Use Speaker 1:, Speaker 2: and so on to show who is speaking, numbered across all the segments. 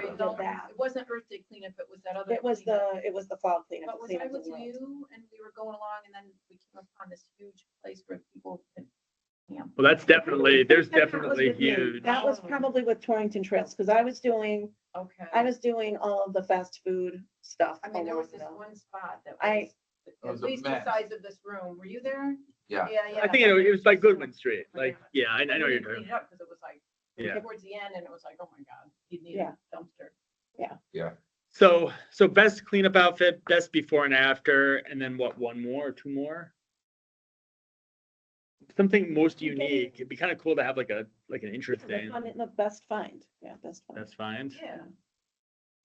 Speaker 1: did
Speaker 2: no,
Speaker 1: that.
Speaker 2: It wasn't Earth Day cleanup, it was that other.
Speaker 1: It was
Speaker 2: cleanup.
Speaker 1: the, it was the fall cleanup.
Speaker 2: But
Speaker 1: the
Speaker 2: was
Speaker 1: cleanup
Speaker 2: I
Speaker 1: of the
Speaker 2: with
Speaker 1: world.
Speaker 2: you and we were going along and then we came upon this huge place where people could camp?
Speaker 3: Well, that's definitely, there's
Speaker 2: That was
Speaker 3: definitely
Speaker 2: with me.
Speaker 3: huge.
Speaker 1: That was probably with Torrington Trails, because I was doing,
Speaker 2: Okay.
Speaker 1: I was doing all of the fast food stuff.
Speaker 2: I mean, there
Speaker 1: along
Speaker 2: was this
Speaker 1: the-
Speaker 2: one spot that
Speaker 1: I-
Speaker 2: was at
Speaker 4: was a
Speaker 2: least the
Speaker 4: mess.
Speaker 2: size of this room. Were you there?
Speaker 4: Yeah.
Speaker 2: Yeah, yeah.
Speaker 3: I think it it was like Goodwin Street, like, yeah, I I know
Speaker 2: We
Speaker 3: you're
Speaker 2: didn't
Speaker 3: doing.
Speaker 2: clean it up 'cause it was like
Speaker 3: Yeah.
Speaker 2: towards the end and it was like, oh my God, you need
Speaker 1: Yeah.
Speaker 2: a dumpster.
Speaker 3: So, so best cleanup outfit, best before and after, and then what, one more, or two more? Something most unique. It'd be kind of cool to have like a, like an
Speaker 1: The
Speaker 3: interesting,
Speaker 1: fun- The best find, yeah, best find.
Speaker 3: that's fine.
Speaker 2: Yeah.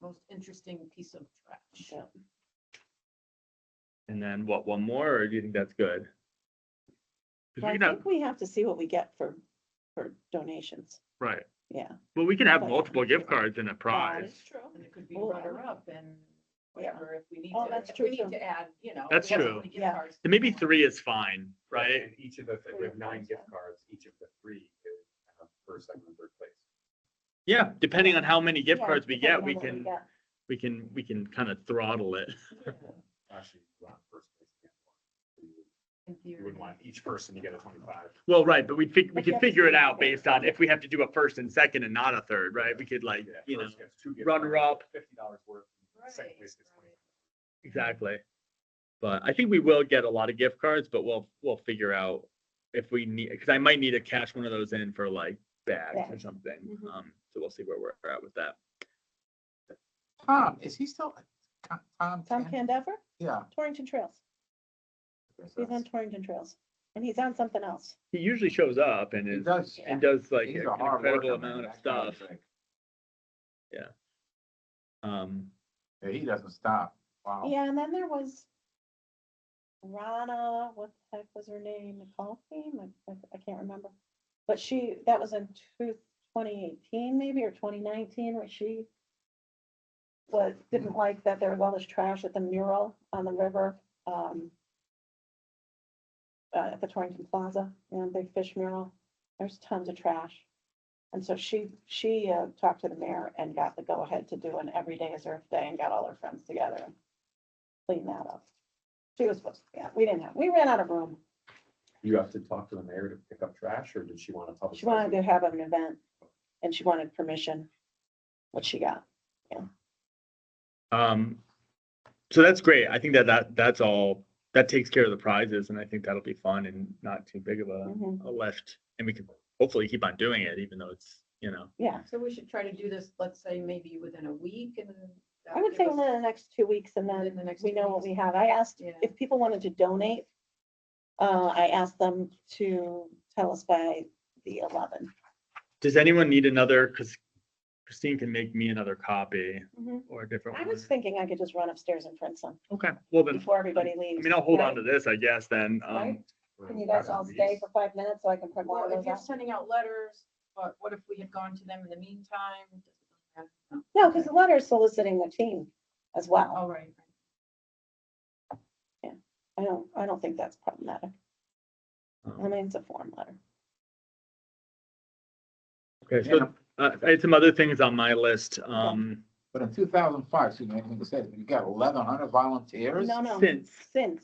Speaker 2: Most interesting piece of trash.
Speaker 1: Yeah.
Speaker 3: And then what, one more, or do you think that's good? 'Cause
Speaker 1: Well,
Speaker 3: we
Speaker 1: I
Speaker 3: can have,
Speaker 1: think we have to see what we get for, for donations,
Speaker 3: right,
Speaker 1: yeah.
Speaker 3: well, we can have
Speaker 1: But-
Speaker 3: multiple gift cards and a
Speaker 1: That
Speaker 3: prize.
Speaker 1: is true.
Speaker 2: And it could be
Speaker 1: Well,
Speaker 2: runner up and whatever, if we need
Speaker 1: Oh,
Speaker 2: to,
Speaker 1: that's
Speaker 2: if we
Speaker 1: true,
Speaker 2: need
Speaker 1: too.
Speaker 2: to add, you know.
Speaker 3: That's
Speaker 2: we have so
Speaker 3: true.
Speaker 2: many gift
Speaker 1: Yeah.
Speaker 2: cards.
Speaker 3: So Maybe three is fine, right?
Speaker 5: And each of the, we have nine gift cards, each of the three is uh, first, second, and third place.
Speaker 3: Yeah, depending on how many gift
Speaker 1: Yeah,
Speaker 3: cards we
Speaker 1: depending
Speaker 3: get,
Speaker 1: on
Speaker 3: we
Speaker 1: what
Speaker 3: can,
Speaker 1: get.
Speaker 3: we can, we can kind of throttle it.
Speaker 5: Actually, you want first place. you can't want-
Speaker 2: In
Speaker 5: You
Speaker 2: theory.
Speaker 5: wouldn't want each person to get a twenty-five.
Speaker 3: Well, right, but we fig, we
Speaker 1: But you
Speaker 3: could
Speaker 1: have to
Speaker 3: figure it
Speaker 1: figure
Speaker 3: out
Speaker 1: out.
Speaker 3: based on if we have to do a first and second and not a third, right? We could like,
Speaker 5: Yeah,
Speaker 3: you know,
Speaker 5: first gets two gift
Speaker 3: runner
Speaker 5: cards,
Speaker 3: up.
Speaker 5: Fifty dollars worth, and second
Speaker 2: Right,
Speaker 5: place gets
Speaker 2: right.
Speaker 5: twenty.
Speaker 3: exactly. But I think we will get a lot of gift cards, but we'll, we'll figure out if we need, because I might need to cash one of those in for like bags or
Speaker 1: Bags.
Speaker 3: something.
Speaker 4: Mm-hmm.
Speaker 1: Mhm.
Speaker 3: Um, so we'll see where we're at with that.
Speaker 4: Tom, is he still, Tom?
Speaker 1: Tom
Speaker 4: Ken?
Speaker 1: Candever,
Speaker 4: Yeah.
Speaker 1: Torrington Trails, he's on Torrington Trails, and he's on something else.
Speaker 3: He usually shows up and
Speaker 4: He
Speaker 3: is,
Speaker 4: does.
Speaker 3: and does like
Speaker 4: He's
Speaker 3: an
Speaker 4: a hard
Speaker 3: incredible
Speaker 4: worker, man,
Speaker 3: amount of
Speaker 4: that guy
Speaker 3: stuff.
Speaker 4: is like-
Speaker 3: Um,
Speaker 4: Yeah, he doesn't stop. Wow.
Speaker 1: Yeah, and then there was Rana, what the heck was her name, McCollum, I, I- I can't remember. But she, that was in two- 2018 maybe, or twenty nineteen, where she was, didn't like that there was all this trash at the mural on the river, um, uh, at the Torrington Plaza, you know, big fish mural, there's tons of trash. And so she, she, uh, talked to the mayor and got the go-ahead to do an every day is Earth Day and got all her friends together and clean that up. She was supposed, yeah, we didn't have, we ran out of room.
Speaker 5: You have to talk to the mayor to pick up trash, or did she want to publicize?
Speaker 1: She wanted
Speaker 5: it?
Speaker 1: to have an event and she wanted permission, which she got.
Speaker 3: Um, so that's great. I think that that that's all. That takes care of the prizes, and I think that'll be fun and not too big of a,
Speaker 1: Mhm.
Speaker 3: a lift. And we can hopefully keep on doing it, even though it's you know.
Speaker 1: Yeah,
Speaker 2: So we should try to do this, let's say, maybe within a week and. that
Speaker 1: I would
Speaker 2: give
Speaker 1: say
Speaker 2: us-
Speaker 1: within the next two weeks and
Speaker 2: Within the
Speaker 1: then
Speaker 2: next
Speaker 1: we
Speaker 2: two
Speaker 1: know what
Speaker 2: weeks.
Speaker 1: we have. I asked
Speaker 2: Yeah.
Speaker 1: if people wanted to donate. Uh, I asked them to tell us by the eleven.
Speaker 3: Does anyone need another? Because Christine can make me another copy
Speaker 2: Mm-hmm.
Speaker 3: or a different
Speaker 1: I
Speaker 3: one.
Speaker 1: was thinking I could just run upstairs and print some
Speaker 3: Okay. Well then,
Speaker 1: before everybody
Speaker 3: I
Speaker 1: leaves.
Speaker 3: mean, I'll hold on
Speaker 1: Right?
Speaker 3: to this, I guess. Then. Um,
Speaker 1: Right? Can you guys all stay for five minutes so I can print one
Speaker 2: Well,
Speaker 1: of
Speaker 2: if
Speaker 1: those
Speaker 2: you're
Speaker 1: out?
Speaker 2: sending out letters, but what if we had gone to them in the meantime? Does it matter? No.
Speaker 1: No, because the letter is soliciting the team as well.
Speaker 2: All right.
Speaker 1: I don't, I don't think that's problematic. I
Speaker 3: um,
Speaker 1: mean, it's a form letter.
Speaker 3: okay. So uh, I had some other things on my list. Um,
Speaker 4: But in two thousand five, excuse me, I think I said, you got eleven hundred volunteers?
Speaker 1: No, no,
Speaker 3: since
Speaker 1: since,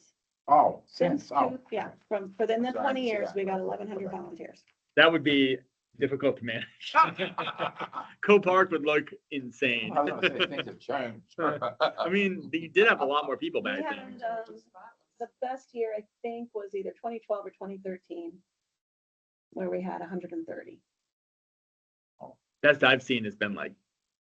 Speaker 4: Oh,
Speaker 1: since,
Speaker 4: since, oh.
Speaker 1: two- yeah, from, within
Speaker 4: Sorry,
Speaker 1: the
Speaker 4: I didn't
Speaker 1: twenty
Speaker 4: see
Speaker 1: years,
Speaker 4: that.
Speaker 1: we got eleven hundred
Speaker 4: Okay.
Speaker 1: volunteers.
Speaker 3: that would be difficult to manage. Co-park would look insane.
Speaker 4: I was gonna say, things have changed.
Speaker 3: I mean, you did have a lot more people
Speaker 1: We
Speaker 3: back then.
Speaker 1: had, um, the best year, I think, was either twenty twelve or twenty thirteen, where we had hundred and thirty.
Speaker 3: Best I've seen has been like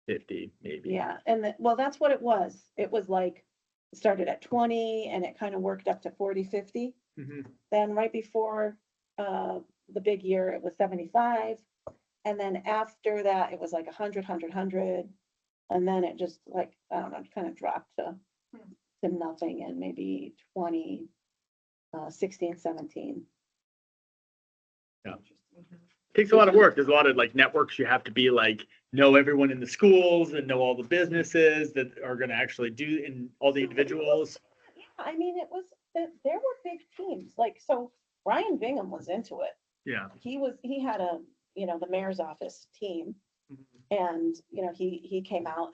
Speaker 3: fifty, maybe.
Speaker 1: Yeah, and that, well, that's what it was. It was like, it started at twenty and it kind of worked up to 40, 50.
Speaker 3: Mhm.
Speaker 1: Then right before uh, the big year, it was 75. And then after that, it was like 100, 100, 100. And then it just like, I don't know, kind of dropped to,
Speaker 2: Hmm.
Speaker 1: to nothing and maybe 20, uh, 16, 17.
Speaker 3: Yeah.
Speaker 2: Interesting.
Speaker 3: Takes a lot of work. There's a lot of like networks you have to be like, know everyone in the schools and know all the businesses that are gonna actually do and all the
Speaker 1: So it was-
Speaker 3: individuals.
Speaker 1: Yeah, I mean, it was, that there were big teams. Like, so Ryan Bingham was into it.
Speaker 3: Yeah.
Speaker 1: He was, he had a, you know, the mayor's office team.
Speaker 3: Mhm.
Speaker 1: And, you know, he, he came out